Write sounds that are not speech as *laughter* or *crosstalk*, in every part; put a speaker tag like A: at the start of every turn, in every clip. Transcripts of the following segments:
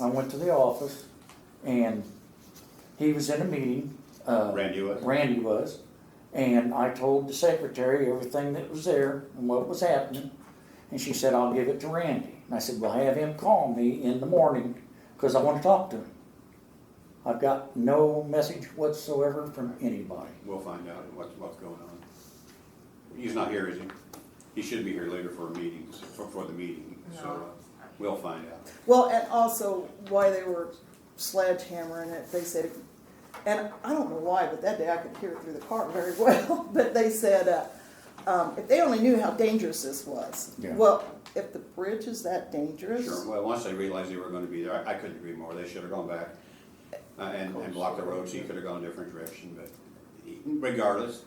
A: I went to the office and he was in a meeting. uh,
B: Randy was?
A: Randy was. And I told the secretary everything that was there and what was happening. And she said, I'll give it to Randy. And I said, well, have him call me in the morning because I want to talk to him. I've got no message whatsoever from anybody.
B: We'll find out what's, what's going on. He's not here, is he? He should be here later for a meeting, for, for the meeting, so uh, we'll find out.
C: Well, and also why they were sledgehammering it, they said, and I don't know why, but that day I could hear it through the car very *laughs* well, but they said, uh, um, if they only knew how dangerous this was.
A: Yeah.
C: Well, if the bridge is that dangerous,
B: Sure, well, once they realized they were gonna be there, I, I couldn't agree more, they should have gone back uh, and, and blocked the road, so he could have gone a different direction, but he- regardless,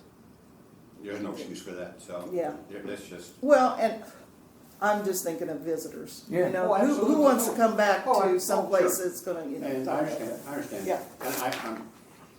B: there's no excuse for that, so.
C: Yeah.
B: there- That's just,
C: well, and I'm just thinking of visitors.
A: Yeah.
C: You know,
B: Oh,
C: who,
B: absolutely.
C: who wants to come back
B: Oh, I- oh,
C: to someplace
B: sure.
C: that's gonna, you know.
B: and I understand, I understand.
C: Yeah.
B: And I, I'm,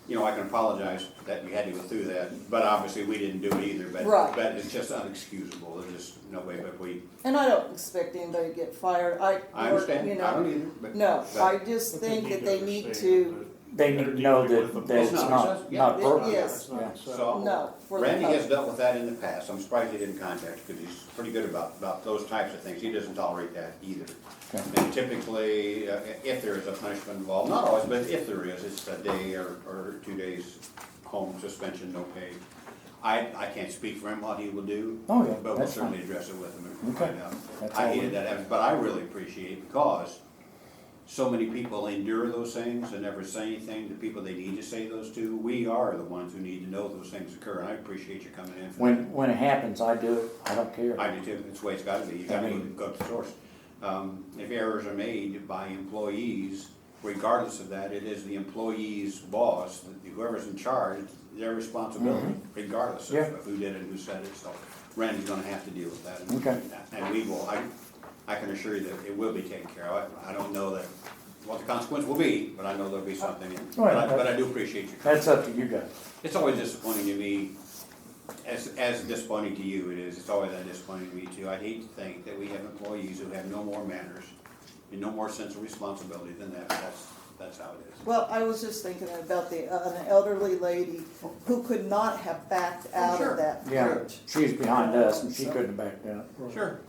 B: you know, I can apologize that we had to go through that, but obviously we didn't do it either, but,
C: Right.
B: but it's just unexcusable, there's just no way, but we,
C: And I don't expect anybody to get fired, I,
B: I
C: or,
B: understand,
C: you
B: I don't
C: know,
B: either, but.
C: no,
B: but
C: I just think that they need to,
A: They need to know that, that it's
B: It's not
A: not,
B: acceptable.
A: not
C: Yeah.
A: appropriate.
C: Yes.
A: Yeah.
B: So.
C: no. for the
B: Randy
C: public.
B: has dealt with that in the past, I'm surprised he didn't contact, because he's pretty good about, about those types of things, he doesn't tolerate that either.
A: Okay.
B: And typically, uh, if there is a punishment involved, not always, but if there is, it's a day or, or two days home suspension, no pay. I, I can't speak for him, what he will do.
A: Oh, yeah,
B: But we'll
A: that's
B: certainly address it with him and
A: Okay.
B: find out.
A: That's all
B: I
A: we-
B: hated that, happen, but I really appreciate it because so many people endure those things and never say anything, the people they need to say those to, we are the ones who need to know those things occur, and I appreciate you coming in for
A: When, when it happens, I do it. I don't care.
B: that. I do too, it's the way it's gotta be, you
A: I
B: gotta
A: mean-
B: go to the source. Um, if errors are made by employees, regardless of that, it is the employee's boss, whoever's in charge, their responsibility, regardless of-
A: Mm-hmm. Yeah.
B: of who did it, and who said it, so Randy's gonna have to deal with that. and-
A: Okay.
B: And we will, I, I can assure you that it will be taken care of, I, I don't know that, what the consequence will be, but I know there'll be something, in it.
A: All right,
B: but I, but I
A: that's-
B: do appreciate your
A: That's up to you guys.
B: it's always disappointing to me, as, as disappointing to you it is, it's always that disappointing to me too. I hate to think that we have employees who have no more manners and no more sense of responsibility than that, that's, that's how it is.
C: Well, I was just thinking about the, uh, an elderly lady who could not have backed out
B: sure.
C: of that
A: Yeah,
C: church,
A: she's behind us and she couldn't back down.
B: Sure.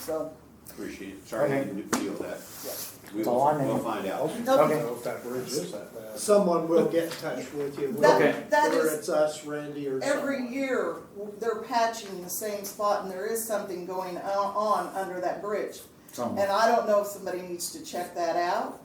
C: so,
B: Appreciate it, sorry I didn't deal with that.
C: yeah.
B: We
A: That's all I
B: will,
A: need.
B: we'll find out.
A: Okay.
D: if that bridge is that bad.
E: Someone will get in touch with you.
C: That-
E: whether-
C: that
E: Whether
C: is-
E: it's us, Randy, or
C: Every
E: someone.
C: year, they're patching the same spot and there is something going on, on under that bridge.
A: Some-
C: And I don't know if somebody needs to check that out,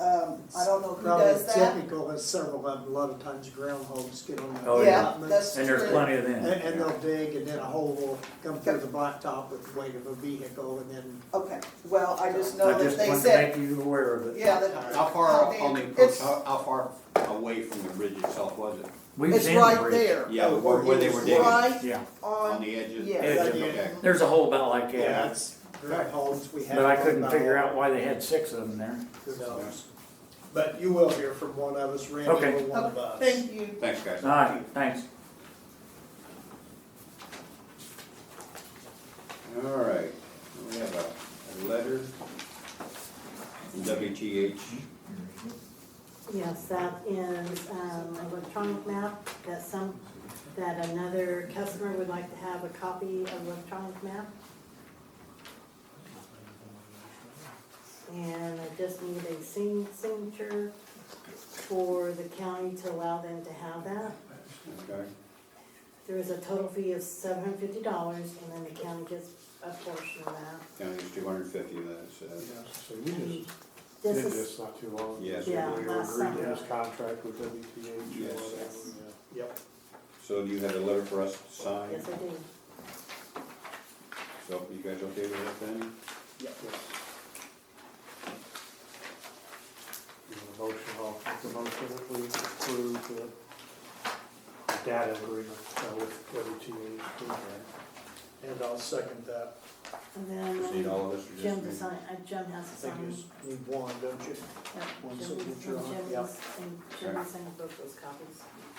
C: um, I don't know who
E: Probably
C: does that.
E: Typical is several of them, a lot of times groundhogs get on the
A: Oh, yeah.
C: Yeah,
E: allotments,
C: that's
A: And there's
C: true,
A: plenty of
E: And,
A: them.
E: and they'll dig and then a hole will come through the blacktop with the weight of a vehicle and then
C: okay, well, I just know
A: I
C: that
A: just
C: they
A: wanted to
C: said,
A: make you aware of it.
C: yeah, that.
B: How far
C: how
B: on the
C: big-
B: approach,
C: Oh, it's-
B: how, how far away from the bridge itself was it?
A: We was
C: It's
A: in the
C: right
A: bridge.
C: there.
B: Yeah, where- where they were
C: It's
B: digging.
C: Oh, Right
A: Yeah,
B: On
C: on,
B: the edges?
C: yeah.
A: Edge
E: of it.
B: Okay.
A: there's a hole about like
E: Yeah,
A: that,
E: it's groundhogs, we have.
A: but I
E: them
A: couldn't
E: by
A: figure
E: all.
A: out why they had six of them there.
E: Who knows? But you will hear from one of us, Randy
A: Okay.
E: or one of us.
C: thank you.
B: Thanks, guys.
A: All right, thanks.
B: All right, we have a, a letter from WTH.
F: Yes, that is um, an electronic map that some, that another customer would like to have a copy of electronic map. And I just need a sign- signature for the county to allow them to have that.
B: Okay.
F: There is a total fee of seven hundred fifty dollars and then the county gets a portion of that.
B: County's two hundred and fifty, that's, uh,
D: So we just did
F: This is,
D: this not too long. ago.
B: Yes.
F: Yeah,
D: We
F: last
D: agreed to
F: summer.
D: this contract with WPH or
B: Yes.
D: whatever, yeah.
E: Yep.
B: So you had a letter for us to sign,
F: yes, I do.
B: so you guys okay with that then?
D: You want a Motion, I'll make the motion that we approve the data agreement uh, with WPH.
E: And I'll second that.
F: And then
B: Proceed all of us or
F: Jim to
B: just me?
F: sign, uh, Jim has
E: I
F: to
E: think you
F: sign.
E: just need one, don't you?
F: Yeah,
E: One
F: Jim's-
E: signature on it,
F: Jim's-
E: yeah.
F: And Jim will send both those copies.